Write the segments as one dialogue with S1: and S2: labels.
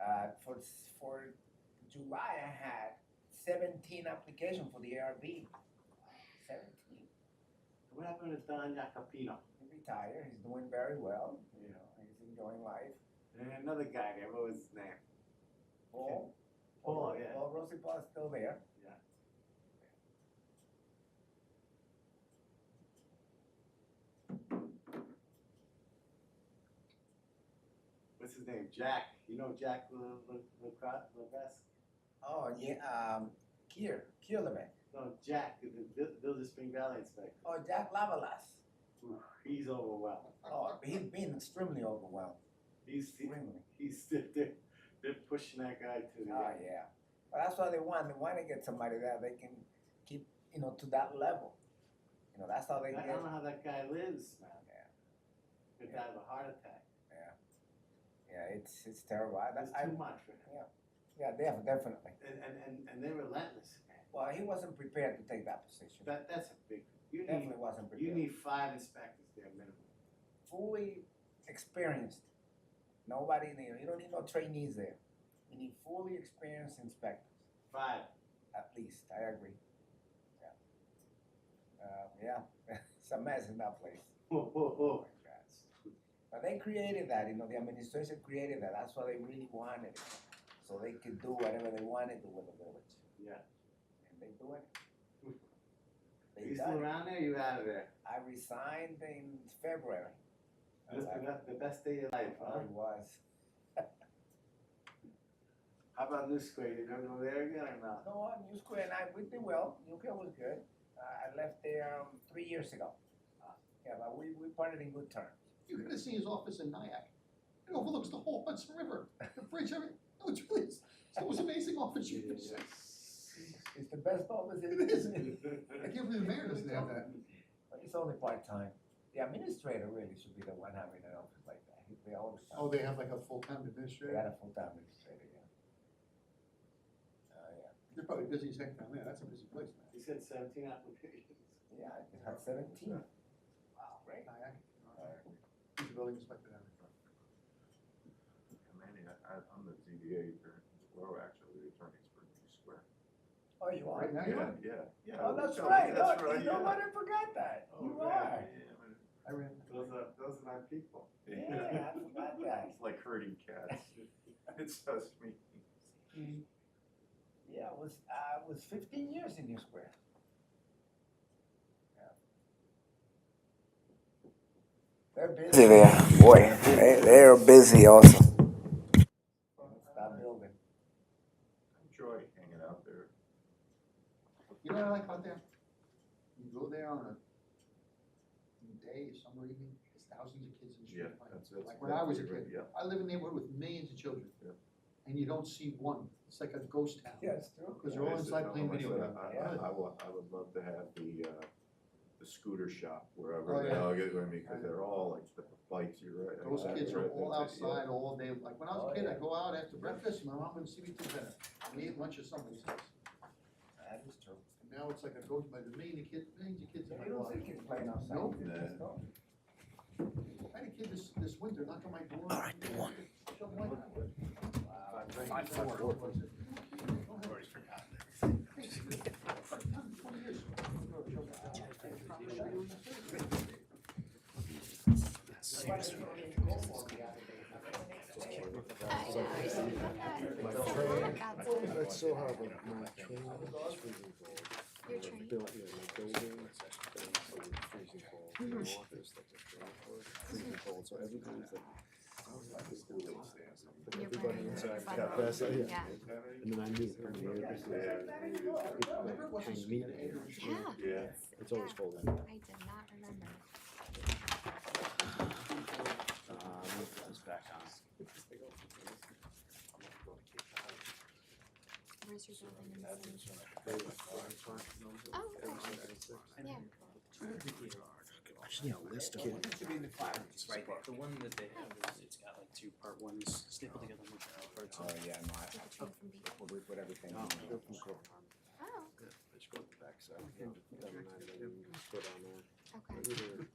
S1: was Uh, for July, I had seventeen applications for the ARB. Seventeen.
S2: What happened to Don Jacopino?
S1: He retired, he's doing very well, you know, he's enjoying life.
S2: And Eh, another guy there, what was his name?
S1: Paul?
S2: Paul, yeah.
S1: Paul Rosie Paul is still there.
S2: Yeah. What's his name? Jack. You know Jack Le- Le- Lecra- Levesque?
S1: Oh, yeah, um, Kier, Kierlebeck.
S2: No, Jack, the Vil- Village Spring Valley inspector.
S1: Oh, Jack Lavalas.
S2: Ooh, He's overwhelmed.
S1: Oh, he's been extremely overwhelmed,
S2: He's
S1: extremely.
S2: he's they're, they're pushing that guy to the
S1: Oh, yeah. But that's what they want. They want to get somebody that they can keep, you know, to that level. You know, that's how they
S2: I
S1: get.
S2: don't know how that guy lives, man.
S1: Yeah.
S2: Could die of a heart attack.
S1: Yeah, it's it's terrible. I,
S2: That's
S1: that's,
S2: too
S1: I,
S2: much for him.
S1: yeah, def- definitely.
S2: And, and, and, and they're relentless, man.
S1: Well, he wasn't prepared to take that position.
S2: That, that's a big, you need,
S1: definitely wasn't
S2: you
S1: prepared.
S2: need five inspectors there minimum.
S1: fully experienced. Nobody there. You don't need no trainees there. You need fully experienced inspectors,
S2: Five.
S1: at least. I agree. Yeah. Uh, yeah, it's a mess in that place.
S2: Whoa, whoa,
S1: Oh
S2: whoa.
S1: my God. But they created that, you know, the administration created that. That's what they really wanted. So they could do whatever they wanted to with the village.
S2: Yeah.
S1: And they do it.
S2: Hmm. Are
S1: They
S2: you still
S1: done it.
S2: around there? or You out of there?
S1: I resigned in February.
S2: That's the, best- the best day of your life,
S1: I
S2: huh?
S1: was.
S2: How about New Square? You don't go there again or not?
S1: No, uh, New Square and I, we did well. New Square was good. Uh, I left there um, three years ago. Uh,
S2: Ah.
S1: Yeah, but we, we parted in good terms.
S3: You could have seen his office in Nyack. It overlooks the whole Hudson River, the bridge, everything. No, it's really, it's, it was amazing office. you could see.
S1: It's the best office in
S3: It is. I
S2: Yeah.
S3: can't believe the mayor doesn't have that.
S1: But it's only part time. The administrator really should be the one having an office like that. He- They always
S3: Oh, they have like a full-time
S1: they
S3: administrator?
S1: had a full time administrator, yeah. Oh, yeah.
S3: They're probably busy as heck down there. That's a busy place, man.
S2: You said seventeen applications.
S1: Yeah, I had 17.
S2: Wow.
S1: Great.
S3: Nyack. He's a building inspector down there.
S4: Manny, I, I- I'm the ZBA attorney, well, actually, the attorneys for New Square.
S1: Oh, you are?
S3: Right now, yeah.
S4: Yeah, yeah.
S1: Oh, that's
S4: Yeah,
S1: right.
S4: That's
S1: oh,
S4: right,
S1: you
S4: yeah.
S1: know what? I forgot that.
S2: Oh,
S1: you
S2: man.
S1: are.
S4: Yeah, man.
S3: I ran.
S2: Those are, those are my people.
S1: Yeah, I forgot that.
S4: It's like herding cats. It's just me.
S1: Yeah, I was I was 15 years in New Square. Yeah. They're busy.
S5: busy there. Boy, they, they are busy also.
S1: Stop building.
S4: I enjoy hanging out there.
S3: You know what I like about there? You go there on a day, summer evening, there's thousands of kids in the street.
S4: Yeah,
S3: playing.
S4: that's, that's.
S3: Like when I was a
S4: that's-
S3: kid.
S4: Yeah,
S3: I live in a neighborhood with millions of children.
S4: Yeah.
S3: And you don't see one. It's like a ghost town.
S1: Yeah, it's true.
S3: Because they're all
S4: Yes,
S3: inside
S4: no,
S3: playing
S4: like I
S3: video
S4: said,
S3: games.
S4: I-
S1: Yeah.
S4: I, I would, I would love to have the, uh, the scooter shop
S3: Oh,
S4: wherever they
S3: yeah.
S4: all get, I mean, because they're all like the bikes, you're right.
S3: Those
S4: I- I-
S3: kids are
S4: right,
S3: all
S4: that's it, yeah.
S3: outside all day, like when I
S1: Oh,
S3: was a kid,
S1: yeah.
S3: I'd go out after breakfast, my mom wouldn't see me till dinner, I ate lunch at somebody's house.
S1: That is true.
S3: And now it's like a ghost, but the million of kids, millions of kids in my
S1: You don't
S3: block.
S1: see kids playing outside.
S3: Nope.
S1: They just don't.
S3: I had a kid this, this winter knock on my door. All right, come on.
S6: Five, four.
S7: That's so hard with my training, it's freezing cold.
S8: Your
S7: Like,
S8: training?
S7: built- yeah, my building, it's freezing cold, my office, like, it's really cold, freezing cold, so everything's like. But
S8: Your
S7: everybody
S8: brain,
S7: inside
S8: your
S7: got
S8: body,
S7: best, yeah,
S8: yeah.
S7: and then I knew, it, and the other
S4: Yeah.
S3: Remember it
S7: people, like,
S3: wasn't
S7: hang meat in
S3: skinny,
S7: there.
S3: it
S8: Yeah.
S4: Yeah.
S7: it's always
S8: Yeah.
S7: cold in
S8: I did not remember.
S6: Uh,
S7: Um,
S6: move this back on.
S8: Where's your building in the city?
S7: there.
S8: Oh, okay. yeah.
S7: I should need a list of
S6: It should be in the file, it's right there. The one that they have is, it's got like two part ones stapled together with the parts.
S1: Oh, yeah, no, I,
S8: Did the train from Beacon?
S1: we put everything
S6: No.
S1: in.
S8: Oh, okay.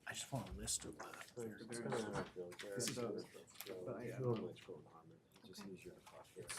S6: I just want a list of uh, the.
S7: This
S6: This is-
S7: is.
S6: but I-
S7: Normally it's going on, but it just
S8: Okay.
S7: use your clock here.